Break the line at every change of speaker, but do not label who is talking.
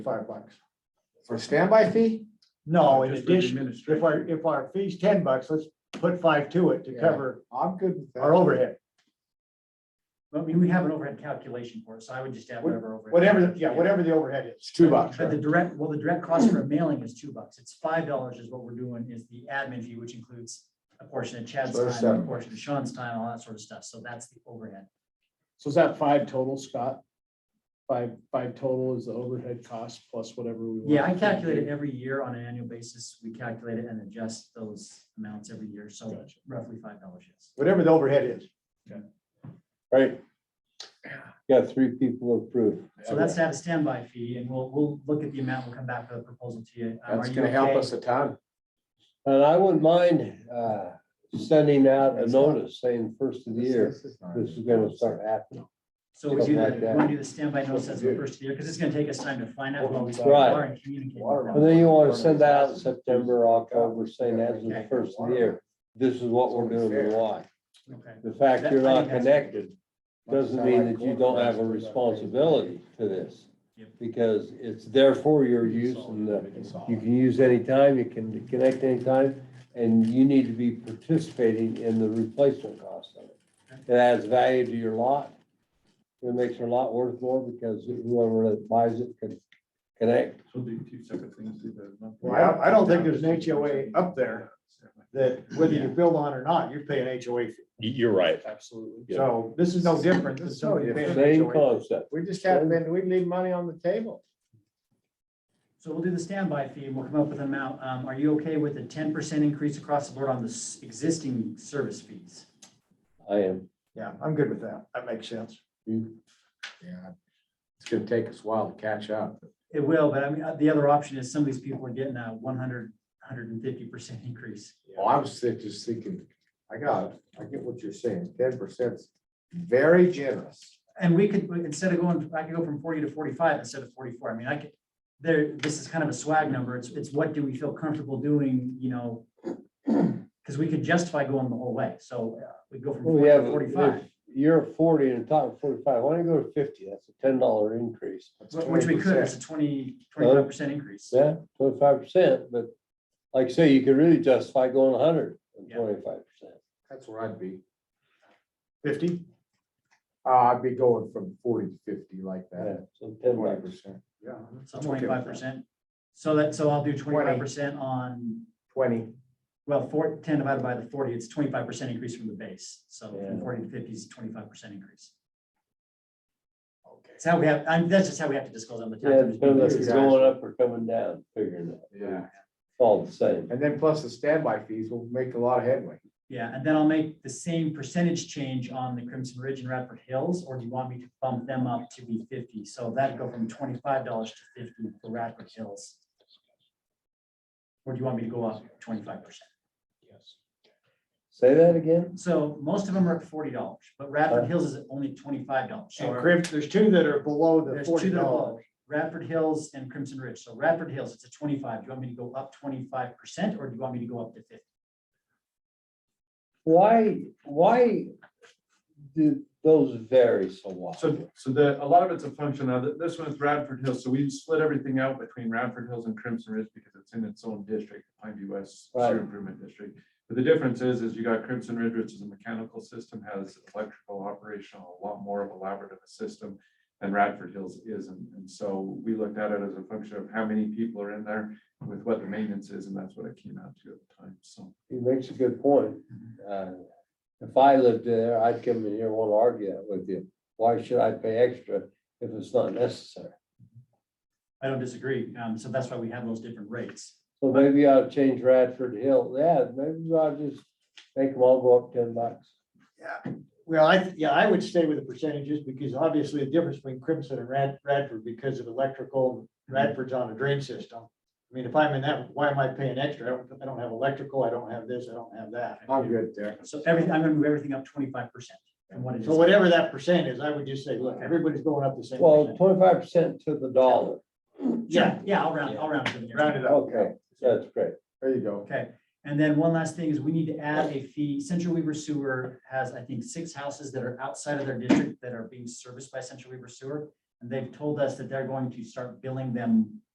five bucks.
For standby fee?
No,
Uh,
in
just for the
addition, if our, if our fee's ten bucks, let's put five to it to
Yeah.
cover
I'm good with
our
that.
overhead.
Well, I mean, we have an overhead calculation for it, so I would just add whatever overhead.
Whatever, yeah, whatever the overhead is.
It's two bucks,
But the
right?
direct, well, the direct cost for a mailing is two bucks. It's five dollars is what we're doing is the admin fee, which includes a portion of Chad's
So there's
time, a
seven.
portion of Sean's time, all that sort of stuff. So that's the overhead.
So is that five total, Scott? Five, five total is the overhead cost plus whatever we. want.
Yeah, I calculate it every year on an annual basis. We calculate it and adjust those amounts every year. So
Gotcha.
roughly five dollars, yes.
Whatever the overhead is.
Right. Got three people approved.
So that's to have a standby fee and we'll, we'll look at the amount. We'll come back with a proposal to you. Um,
That's
are you
gonna help
okay?
us a ton.
And I wouldn't mind uh, sending out a notice saying first of the year, this is gonna start happening.
So we do the,
Something like that.
we do the standby notice as the first of the year, because it's gonna take us time to find out what we still
Right.
are and communicate.
And then you wanna send that out in September, October, saying as the first of the year, this is what we're doing and why.
Okay,
The fact you're not connected doesn't mean that you don't have a responsibility to this. Because it's there for your use and the You can use anytime, you can connect anytime, and you need to be participating in the replacement cost of it. It adds value to your lot. It makes your lot worth more because whoever that buys it can connect.
So do two separate things, do the.
Well, I don't- I don't think there's an HOA up there. That whether you build on or not, you're paying HOA fee.
You're right.
Absolutely.
Yeah.
So this is no different than somebody paying an
Same
HOA.
concept.
We just haven't been, we leave money on the table.
so we'll do the standby fee, and we'll come up with an amount, um, are you okay with a ten percent increase across the board on the s- existing service fees?
I am.
Yeah, I'm good with that. That makes sense.
Yeah. Mm. It's gonna take us a while to catch up.
It will, but I mean, uh, the other option is some of these people are getting a 100, 150 percent increase.
Well, I was thi- just thinking, I got, I get what you're saying, ten percent's very generous.
And we could, we- instead of going, I could go from forty to forty-five instead of forty-four. I mean, I could, there, this is kind of a swag number. It's, it's what do we feel comfortable doing, you know? Because we could justify going the whole way. So uh, we go from
Well,
forty
yeah,
to
but
forty-five,
if You're at forty and the top of forty-five, why don't you go to fifty? That's a ten dollar increase.
That's
wh- which we could,
20%.
it's a 20 25 percent increase.
Yeah, twenty-five percent, but like I say, you could really justify going a hundred and
Yeah.
twenty-five percent.
That's where I'd be.
Fifty?
Uh, I'd be going from forty to fifty like
Yeah,
that,
so ten
twenty
bucks.
percent,
Yeah.
So
I'm okay with
twenty-five percent. So that, so I'll do twenty-five percent on,
twenty.
well, four, ten divided by the forty, it's twenty-five percent increase from the base. So
Yeah.
from forty to fifty is twenty-five percent increase.
Okay.
It's how we have, I'm, that's just how we have to disclose on the tax.
Yeah, depending if
you
it's
guys.
going up or coming down, figuring it out.
Yeah,
It's all the same.
and then plus the standby fees will make a lot of headway.
Yeah, and then I'll make the same percentage change on the Crimson Ridge and Radford Hills, or do you want me to bump them up to be fifty? So that'd go from twenty-five dollars to fifty for Radford Hills. Or do you want me to go up twenty-five percent?
Say that again?
So most of them are at forty dollars, but Radford Hills is at only twenty-five dollars.
Uh, And
So
Crib, there's two that are below the
there's two
forty
that are below,
dollars.
Radford Hills and Crimson Ridge. So Radford Hills, it's a twenty-five. Do you want me to go up twenty-five percent, or do you want me to go up to fifty?
Why, why do those vary so
So,
wide?
so the, a lot of it's a function of, th- this one's Radford Hills, so we split everything out between Radford Hills and Crimson Ridge because it's in its own district, Pine View West Sewer
Right.
Improvement District. But the difference is, is you got Crimson Ridge, which is a mechanical system, has electrical operational, a lot more of elaborate of a system than Radford Hills isn't. And so we looked at it as a function of how many people are in there with what the maintenance is, and that's what it came out to at the time, so.
He makes a good point. Uh, If I lived there, I'd come in here and want to argue that with you. Why should I pay extra if it's not necessary?
I don't disagree. Um, so that's why we have those different rates.
So maybe I'll change Radford Hill. Yeah, maybe I'll just make them all go up ten bucks.
Well, I, yeah, I would stay with the percentages because obviously the difference between Crimson and Rad- Radford because of electrical, Radford's on a drain system. I mean, if I'm in that, why am I paying extra? I don't, I don't have electrical, I don't have this, I don't have that.
I'm good there.
So everything, I'm gonna move everything up twenty-five percent from what it is.
So whatever that percent is, I would just say, look, everybody's going up the same.
Well,
percent.
twenty-five percent to the dollar.
Yeah, yeah, I'll round, I'll round it. in.
Round it up.
Okay, that's great.
There you go.
Okay, and then one last thing is we need to add a fee. Central Weaver Sewer has, I think, six houses that are outside of their district that are being serviced by Central Weaver Sewer. And they've told us that they're going to start billing them